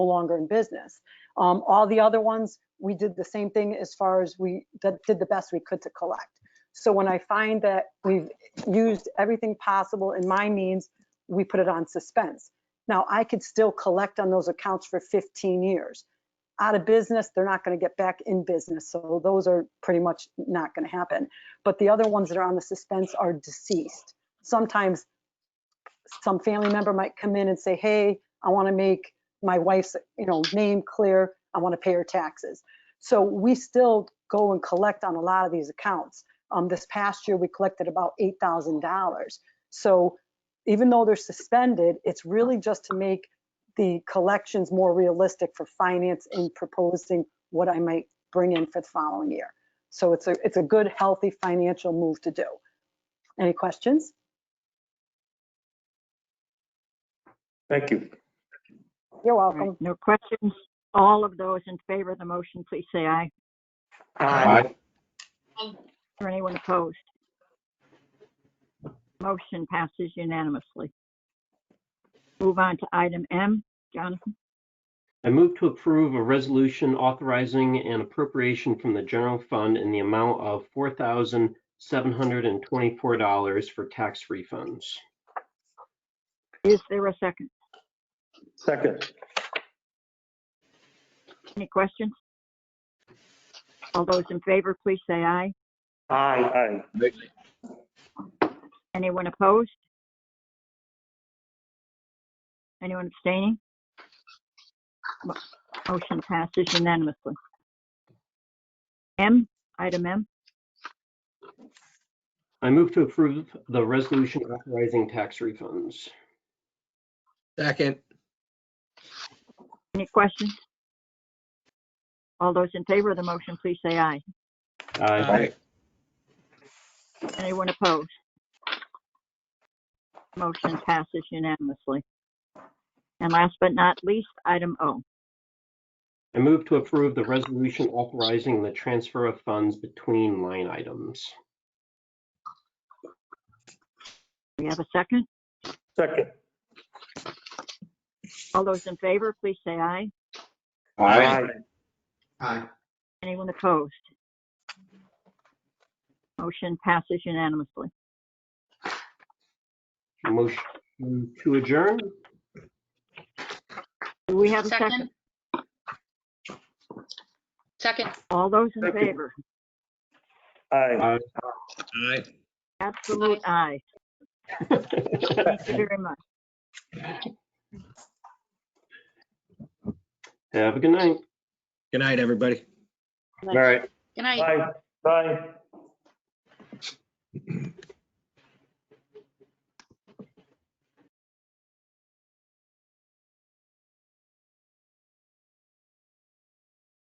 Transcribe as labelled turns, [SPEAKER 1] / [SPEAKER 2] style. [SPEAKER 1] longer in business. Um, All the other ones, we did the same thing as far as we did did the best we could to collect. So when I find that we've used everything possible in my means, we put it on suspense. Now, I could still collect on those accounts for 15 years. Out of business, they're not going to get back in business, so those are pretty much not going to happen. But the other ones that are on the suspense are deceased. Sometimes some family member might come in and say, hey, I want to make my wife's, you know, name clear. I want to pay her taxes. So we still go and collect on a lot of these accounts. Um, this past year, we collected about $8,000. So even though they're suspended, it's really just to make the collections more realistic for finance in proposing what I might bring in for the following year. So it's a, it's a good, healthy financial move to do. Any questions?
[SPEAKER 2] Thank you.
[SPEAKER 1] You're
[SPEAKER 3] All right,
[SPEAKER 1] welcome.
[SPEAKER 3] No questions. All of those in favor of the motion, please say aye.
[SPEAKER 2] Aye.
[SPEAKER 3] Or anyone opposed? Motion passes unanimously. Move on to item M. Jonathan,
[SPEAKER 4] I move to approve a resolution authorizing an appropriation from the general fund in the amount of $4,724 for tax refunds.
[SPEAKER 3] is there a second?
[SPEAKER 2] Second.
[SPEAKER 3] Any questions? All those in favor, please say aye.
[SPEAKER 2] Aye.
[SPEAKER 3] Anyone opposed? Anyone abstaining? Mo- Motion passes unanimously. M, item M.
[SPEAKER 4] I move to approve the resolution authorizing tax refunds.
[SPEAKER 5] Second,
[SPEAKER 3] Any questions? All those in favor of the motion, please say aye.
[SPEAKER 5] aye,
[SPEAKER 4] Aye.
[SPEAKER 3] Anyone opposed? Motion passes unanimously. And last but not least, item O.
[SPEAKER 4] I move to approve the resolution authorizing the transfer of funds between line items.
[SPEAKER 3] We have a second.
[SPEAKER 2] Second.
[SPEAKER 3] All those in favor, please say aye.
[SPEAKER 2] Aye.
[SPEAKER 5] aye,
[SPEAKER 3] Anyone opposed? Motion passes unanimously.
[SPEAKER 4] Motion to adjourn?
[SPEAKER 3] Do we have a second?
[SPEAKER 6] Second,
[SPEAKER 3] All those in
[SPEAKER 2] Second.
[SPEAKER 3] favor?
[SPEAKER 2] Aye.
[SPEAKER 4] Uh,
[SPEAKER 5] aye.
[SPEAKER 3] Absolute aye. Thank you very much.
[SPEAKER 4] Have a good night.
[SPEAKER 5] Good night, everybody.
[SPEAKER 2] All right.
[SPEAKER 6] good night.
[SPEAKER 2] Bye. Bye.